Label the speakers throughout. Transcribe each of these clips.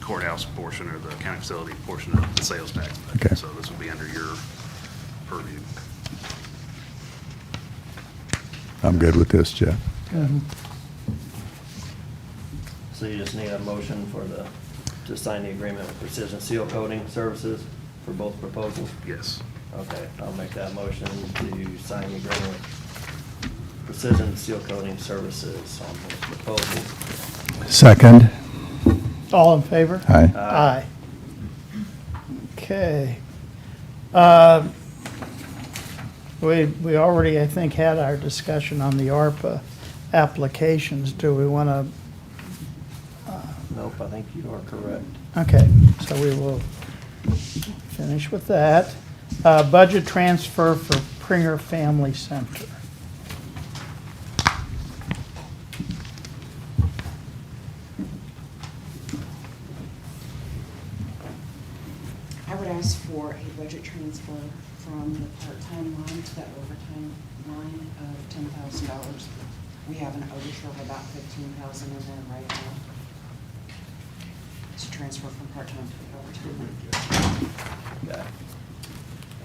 Speaker 1: courthouse portion or the county facility portion of the sales tax.
Speaker 2: Okay.
Speaker 1: So this would be under your purview.
Speaker 2: I'm good with this, Jeff.
Speaker 3: Um,
Speaker 4: So you just need a motion for the, to sign the agreement with Precision Seal Coating Services for both proposals?
Speaker 1: Yes.
Speaker 4: Okay, I'll make that motion to sign the agreement with Precision Seal Coating Services on both proposals.
Speaker 2: Second.
Speaker 3: All in favor?
Speaker 2: Aye.
Speaker 3: Aye. Okay. Um, We, we already, I think, had our discussion on the ARPA applications. Do we want to,
Speaker 4: Nope, I think you are correct.
Speaker 3: okay, so we will finish with that. Uh, Budget transfer for Pringer Family Center.
Speaker 5: I would ask for a budget transfer from the part-time line to the overtime line of ten thousand dollars. We have an overture of about fifteen thousand in there right now. To transfer from part-time to the overtime.
Speaker 4: Okay.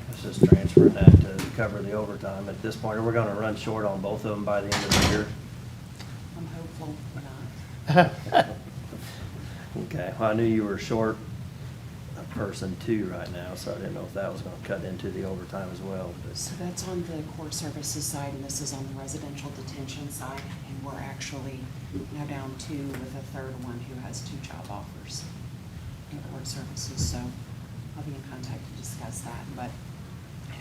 Speaker 4: Let's just transfer that to cover the overtime at this point. We're gonna run short on both of them by the end of the year.
Speaker 5: I'm hopeful not.
Speaker 4: Okay, well, I knew you were short a person too right now, so I didn't know if that was gonna cut into the overtime as well,
Speaker 5: So
Speaker 4: but,
Speaker 5: that's on the court services side, and this is on the residential detention side, and we're actually now down two with a third one who has two job offers in court services, so I'll be in contact to discuss that. But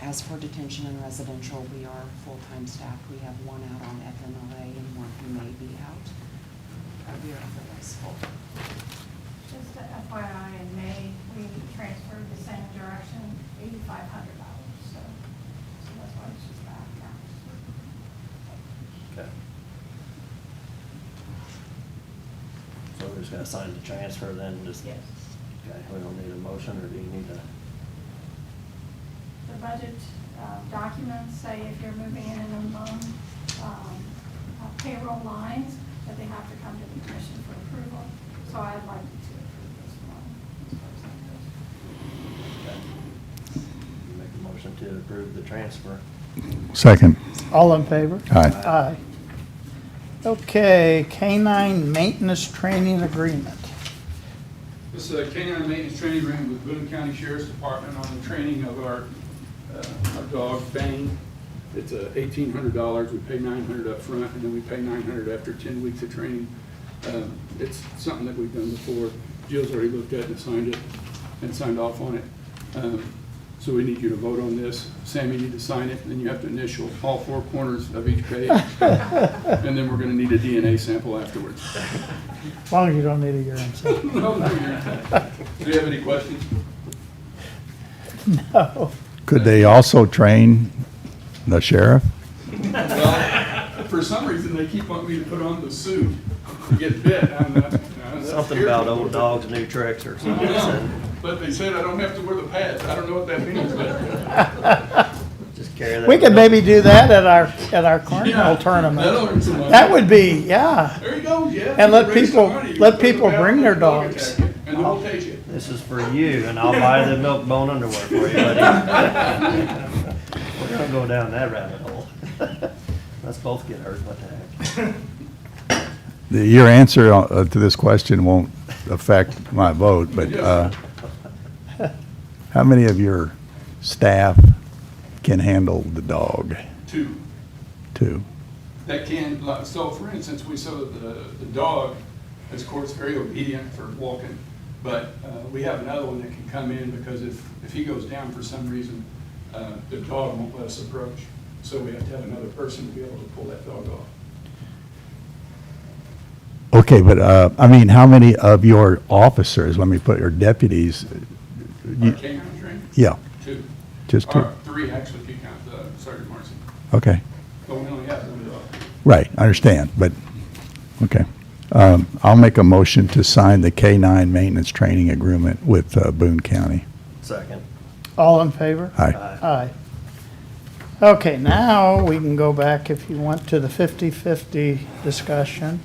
Speaker 5: as for detention and residential, we are full-time staffed. We have one out on FMLA and one who may be out. Uh, We are otherwise full.
Speaker 6: Just a FYI, in May, we transferred the same direction, eighty-five hundred dollars, so, so that's why she's back now.
Speaker 4: okay. So we're just gonna sign the transfer then, just?
Speaker 6: Yes.
Speaker 4: Okay, we don't need a motion, or do you need a,
Speaker 6: The budget uh, documents say if you're moving in and among um, uh, payroll lines, that they have to come to the commission for approval, so I'd like to approve this one. as far as that goes.
Speaker 4: okay. You make a motion to approve the transfer?
Speaker 2: Second.
Speaker 3: All in favor?
Speaker 2: Aye.
Speaker 3: Aye. Okay, canine maintenance training agreement.
Speaker 7: This is a canine maintenance training agreement with Boone County Sheriff's Department on the training of our, uh, our dog Bane. It's uh, eighteen hundred dollars, we pay nine hundred up front, and then we pay nine hundred after ten weeks of training. Um, It's something that we've done before, Jill's already looked at and signed it, and signed off on it. Um, So we need you to vote on this, Sam, you need to sign it, and then you have to initial all four corners of each page. And then we're gonna need a DNA sample afterwards.
Speaker 3: As long as you don't need a urine sample.
Speaker 7: No, no, you're- Do you have any questions?
Speaker 3: No.
Speaker 2: Could they also train the sheriff?
Speaker 7: Well, for some reason, they keep wanting me to put on the suit to get bit. uh, I'm not- I'm
Speaker 4: Something
Speaker 7: scared.
Speaker 4: about old dogs, new tricks, or
Speaker 7: I
Speaker 4: something.
Speaker 7: know, But they said I don't have to wear the pads. I don't know what that means, but.
Speaker 4: Just carry that.
Speaker 3: We could maybe do that at our, at our
Speaker 7: Yeah,
Speaker 3: carnival
Speaker 7: That'll
Speaker 3: tournament.
Speaker 7: earn some money.
Speaker 3: That would be, yeah.
Speaker 7: There you go, yeah.
Speaker 3: And let
Speaker 7: You raise some
Speaker 3: people-
Speaker 7: money. You
Speaker 3: let
Speaker 7: put it
Speaker 3: people
Speaker 7: out,
Speaker 3: bring their
Speaker 7: the dog attack
Speaker 3: dogs.
Speaker 7: you, And then we'll take it.
Speaker 4: This is for you, and I'll buy the milk bone underwear for you, buddy. We're gonna go down that rabbit hole. Let's both get hurt, what the heck?
Speaker 2: The- Your answer uh, to this question won't affect my vote, but uh, how many of your staff can handle the dog,
Speaker 7: Two.
Speaker 2: too?
Speaker 7: that can, like, so for instance, we saw the, the dog, is of course very obedient for walking, but uh, we have another one that can come in because if, if he goes down for some reason, uh, the dog won't let us approach. So we have to have another person to be able to pull that dog off.
Speaker 2: Okay, but, uh, I mean, how many of your officers, let me put, your deputies?
Speaker 7: Our
Speaker 2: you-
Speaker 7: canine trainer,
Speaker 2: Yeah,
Speaker 7: two.
Speaker 2: just two,
Speaker 7: Or three, actually, if you count uh, Sergeant Marcy.
Speaker 2: okay.
Speaker 7: But we only have one dog.
Speaker 2: Right, I understand, but, okay. Um, I'll make a motion to sign the K-9 maintenance training agreement with uh, Boone County.
Speaker 4: Second.
Speaker 3: All in favor?
Speaker 2: Aye.
Speaker 4: Aye.
Speaker 3: Aye. Okay, now we can go back if you want to the 50-50 discussion.